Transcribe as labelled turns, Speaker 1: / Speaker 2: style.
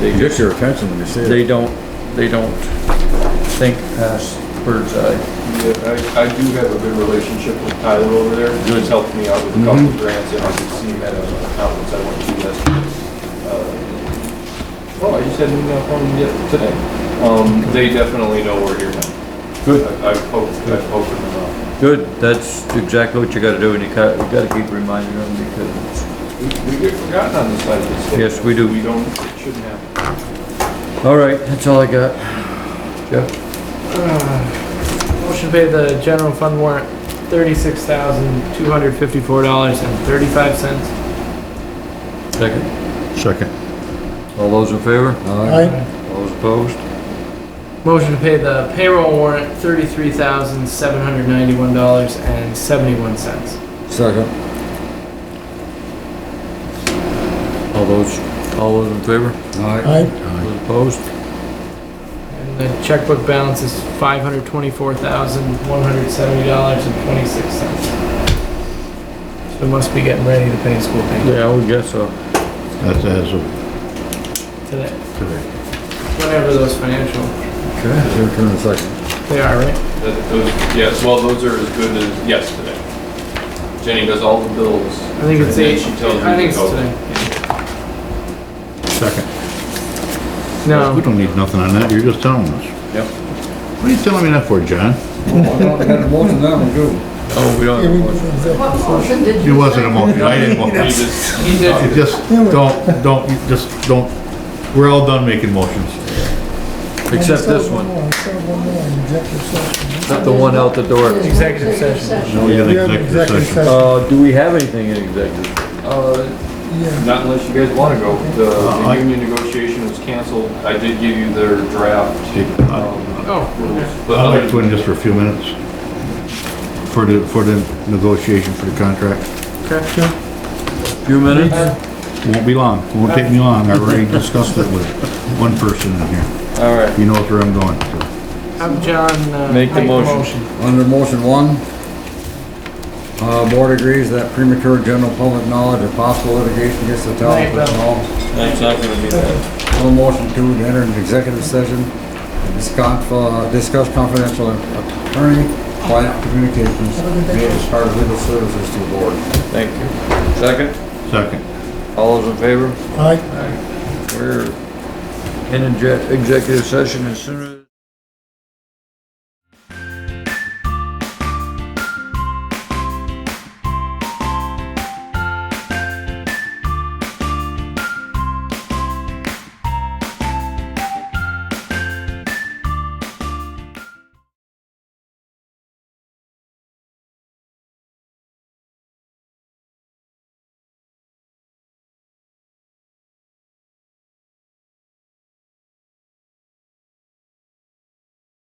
Speaker 1: They
Speaker 2: Gets
Speaker 1: just,
Speaker 2: your attention when you see it.
Speaker 1: they don't, they don't think past bird's eye.
Speaker 3: Yeah, I, I do have a good relationship with Tyler over there. He's helped me out with a
Speaker 1: Mm-hmm.
Speaker 3: couple of grants, and I could see him at a conference I went to last. uh, Oh, I just had an email from him yet today. Um, they definitely know we're here now.
Speaker 1: Good.
Speaker 3: I- I've hoped, I've opened them
Speaker 1: Good, that's exactly what you gotta do, and you gotta, you gotta keep reminding them because,
Speaker 3: up. We, we get forgotten on this side of the state.
Speaker 1: Yes, we do.
Speaker 3: We don't, it shouldn't happen.
Speaker 1: all right, that's all I got. Jeff,
Speaker 4: Uh, Motion to pay the general fund warrant thirty-six thousand, two hundred fifty-four dollars and thirty-five cents.
Speaker 1: second.
Speaker 2: Second.
Speaker 1: All those in favor?
Speaker 2: Aye.
Speaker 1: All those opposed?
Speaker 4: Motion to pay the payroll warrant thirty-three thousand, seven hundred ninety-one dollars and seventy-one cents.
Speaker 2: Second.
Speaker 1: All those, all those in favor?
Speaker 2: Aye.
Speaker 1: All those opposed?
Speaker 4: And the checkbook balance is five hundred twenty-four thousand, one hundred seventy dollars and twenty-six cents. So must be getting ready to pay school payment
Speaker 1: Yeah, I would guess so.
Speaker 2: That's as of
Speaker 4: today,
Speaker 2: today.
Speaker 4: whatever those financial,
Speaker 2: Okay, your turn in a second.
Speaker 4: they are, right?
Speaker 3: That, those, yes, well, those are as good as, yes, today. Jenny does all the bills.
Speaker 4: I think it's
Speaker 3: And
Speaker 4: eight,
Speaker 3: then she tells
Speaker 4: I
Speaker 3: me
Speaker 4: think
Speaker 3: to
Speaker 4: it's
Speaker 3: go.
Speaker 4: today.
Speaker 2: Second.
Speaker 4: No.
Speaker 5: We don't need nothing on that, you're just telling us.
Speaker 1: Yep.
Speaker 5: What are you telling me that for, John?
Speaker 2: I don't have a motion now, we do.
Speaker 1: Oh, we don't have a motion.
Speaker 6: What motion did
Speaker 5: It
Speaker 6: you
Speaker 5: wasn't a
Speaker 6: second?
Speaker 5: motion, I didn't want,
Speaker 3: You
Speaker 5: it
Speaker 3: just-
Speaker 4: He did.
Speaker 5: just, don't, don't, you just don't, we're all done making motions.
Speaker 1: Except this one,
Speaker 7: I still have one more, executive session.
Speaker 1: except the one out the door.
Speaker 4: Executive session.
Speaker 5: Now we got
Speaker 7: We have an
Speaker 5: executive session.
Speaker 1: Uh, do we have anything in executive?
Speaker 3: Uh,
Speaker 7: Yeah,
Speaker 3: Not unless you guys want to go. The- The
Speaker 1: Uh,
Speaker 5: I-
Speaker 3: union negotiation was canceled. I did give you their draft. um,
Speaker 4: Oh,
Speaker 3: rules,
Speaker 4: okay.
Speaker 3: But
Speaker 5: I'd like
Speaker 3: other,
Speaker 5: to in just for a few minutes. For the, for the negotiation for the contract.
Speaker 1: Few minutes?
Speaker 5: Won't be long, won't take me long, I already discussed it with one person in here.
Speaker 1: All right.
Speaker 5: You knows where I'm going, so.
Speaker 4: Have John, uh.
Speaker 1: Make the motion.
Speaker 2: Under motion one, uh, board agrees that premature general public knowledge of possible litigation against the town of
Speaker 4: Right,
Speaker 2: Clinton Hall.
Speaker 3: that's not going to be that.
Speaker 2: No motion two, to enter an executive session, to discuss, uh, discuss confidential attorney-client communications made as part of legal services to the board.
Speaker 1: Thank you. Second,
Speaker 5: Second.
Speaker 1: all those in favor?
Speaker 7: aye.
Speaker 1: We're in exec- executive session as soon as.